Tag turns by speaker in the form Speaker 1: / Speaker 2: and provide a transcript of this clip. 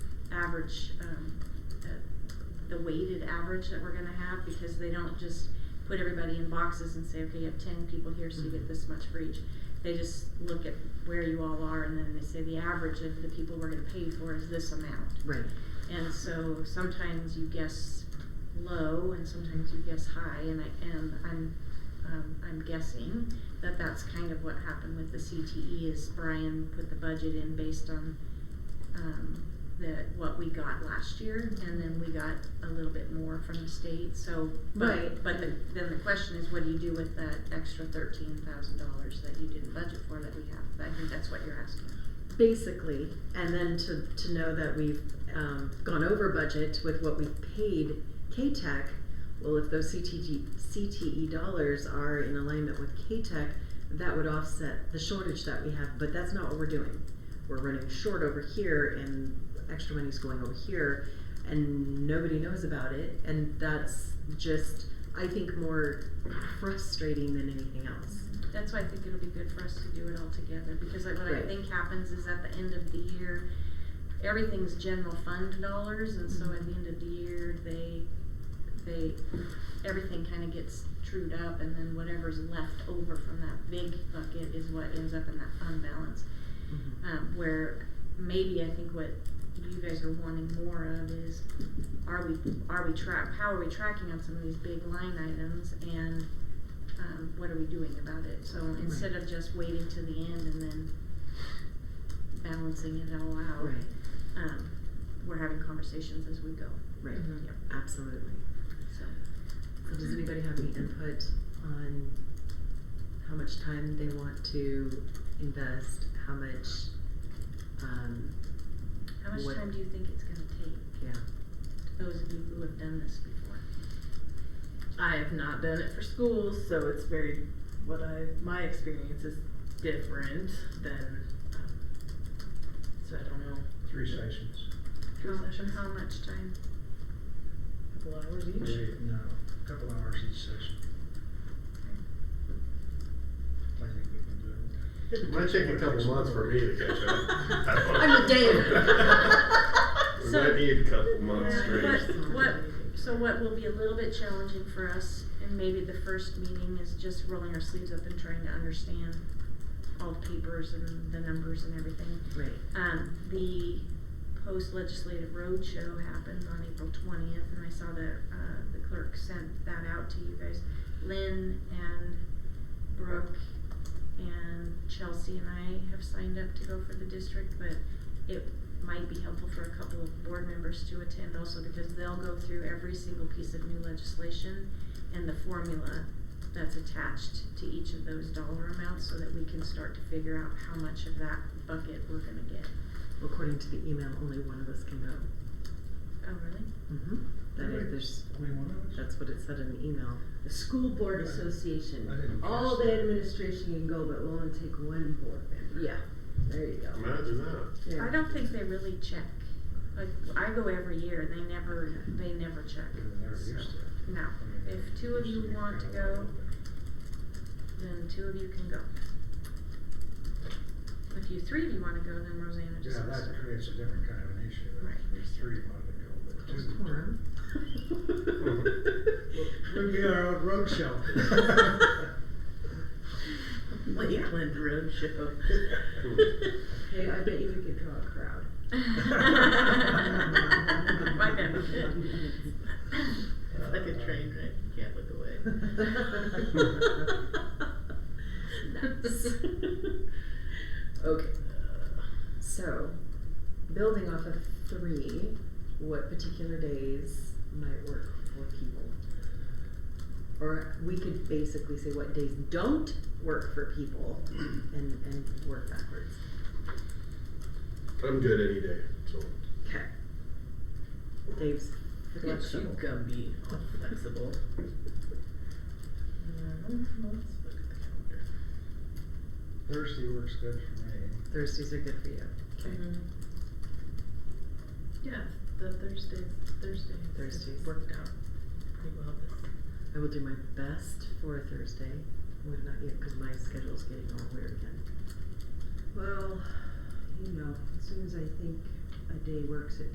Speaker 1: average, um, uh, the weighted average that we're gonna have, because they don't just put everybody in boxes and say, okay, you have ten people here, so you get this much for each. They just look at where you all are, and then they say the average of the people we're gonna pay for is this amount.
Speaker 2: Right.
Speaker 1: And so sometimes you guess low and sometimes you guess high, and I am, I'm, um, I'm guessing that that's kind of what happened with the CTE is Brian put the budget in based on, um, the, what we got last year, and then we got a little bit more from the state, so. but-
Speaker 2: Right.
Speaker 1: But the, then the question is, what do you do with that extra thirteen thousand dollars that you didn't budget for that we have? I think that's what you're asking.
Speaker 2: Basically, and then to, to know that we've, um, gone over budget with what we've paid K-Tech, well, if those CTG, CTE E dollars are in alignment with K-Tech, that would offset the shortage that we have, but that's not what we're doing. We're running short over here and extra money's going over here and nobody knows about it, and that's just, I think, more frustrating than anything else.
Speaker 1: That's why I think it'll be good for us to do it all together, because like what I
Speaker 2: Right.
Speaker 1: think happens is at the end of the year, everything's general fund dollars, and so at the end of the year, they, they, everything kinda gets trued up, and then whatever's left over from that big bucket is what ends up in that fund balance.
Speaker 2: Mm-hmm.
Speaker 1: Um, where maybe I think what you guys are wanting more of is, are we, are we track, how are we tracking on some of these big line items, and um, what are we doing about it? So instead of just waiting to the end and then balancing it all out,
Speaker 2: Right,
Speaker 1: um, we're having conversations as we go.
Speaker 2: right, Mm-hmm.
Speaker 3: Mhm.
Speaker 1: Yep.
Speaker 2: absolutely.
Speaker 1: So
Speaker 2: So does anybody have any input on how much time they want to invest, how much, um,
Speaker 1: how much
Speaker 2: What-
Speaker 1: time do you think it's going to take?
Speaker 2: yeah,
Speaker 1: Those of you who have done this before.
Speaker 3: I have not done it for schools, so it's very what I my experience is different than. Um, so I don't know.
Speaker 4: Three sessions.
Speaker 3: Three
Speaker 1: How-
Speaker 3: sessions?
Speaker 1: How much time?
Speaker 3: A couple hours each.
Speaker 4: Maybe, no, a couple hours each session. I think we can do it.
Speaker 5: It might take a couple months for me to catch up.
Speaker 2: I'm a
Speaker 5: dame. We
Speaker 1: So-
Speaker 5: might need a couple months
Speaker 1: Yeah,
Speaker 5: straight.
Speaker 1: What, what, so what will be a little bit challenging for us, and maybe the first meeting is just rolling our sleeves up and trying to understand all the papers and the numbers and everything.
Speaker 2: right,
Speaker 1: Um, the post-legislative roadshow happened on April twentieth, and I saw that, uh, the clerk sent that out to you guys. Lynn and Brooke and Chelsea and I have signed up to go for the district, but it might be helpful for a couple of board members to attend also, because they'll go through every single piece of new legislation and the formula that's attached to each of those dollar amounts, so that we can start to figure out how much of that bucket we're gonna get.
Speaker 2: according to the email, only one of us can go.
Speaker 1: Oh, really?
Speaker 2: Mm-hmm. That is, there's,
Speaker 4: Only one of us?
Speaker 2: that's what it said in the email.
Speaker 6: The school board
Speaker 4: Right. I
Speaker 6: association,
Speaker 4: didn't
Speaker 6: all
Speaker 4: catch
Speaker 6: the
Speaker 4: that.
Speaker 6: administration can go, but we'll only take one board member.
Speaker 2: Yeah.
Speaker 6: There you go.
Speaker 5: Imagine that.
Speaker 6: Yeah.
Speaker 1: I don't think they really check. Like, I go every year, and they never, they never check.
Speaker 4: We were never used to it.
Speaker 1: No,
Speaker 4: I mean,
Speaker 1: if two of
Speaker 4: used
Speaker 1: you
Speaker 4: be
Speaker 1: want to
Speaker 4: kinda
Speaker 1: go,
Speaker 4: wide open.
Speaker 1: then two of you can go. If you three of you wanna go, then Rosanna just
Speaker 4: Yeah,
Speaker 1: has to.
Speaker 4: that creates a different kind of an issue. if
Speaker 1: Right.
Speaker 4: There's three wanted to go, but
Speaker 2: There's
Speaker 4: two.
Speaker 2: quorum.
Speaker 4: We'd be our own road show.
Speaker 3: Lakeland Roadshow.
Speaker 6: Hey, I bet you we could draw a crowd.
Speaker 1: Why not?
Speaker 3: It's like
Speaker 4: Uh,
Speaker 3: a train wreck. You can't look away.
Speaker 2: Nice. Okay. So, building off of three, what particular days might work for people? Or we could basically say what days don't work for people and, and work backwards.
Speaker 5: I'm good any day, so.
Speaker 2: Okay. Dave's
Speaker 3: Look at you,
Speaker 2: flexible.
Speaker 3: Gumby. All flexible. Um, let's look at the calendar.
Speaker 4: Thursday works good for me.
Speaker 2: Thuirstays are good for you. Okay.
Speaker 3: Mhm. Yeah, the Thursday, Thursday.
Speaker 2: Thursdays.
Speaker 3: Worked out pretty well this.
Speaker 2: I will do my best for a Thursday. Would not yet, because my schedule's getting all weird again.
Speaker 6: Well, you know, as soon as I think a day works, it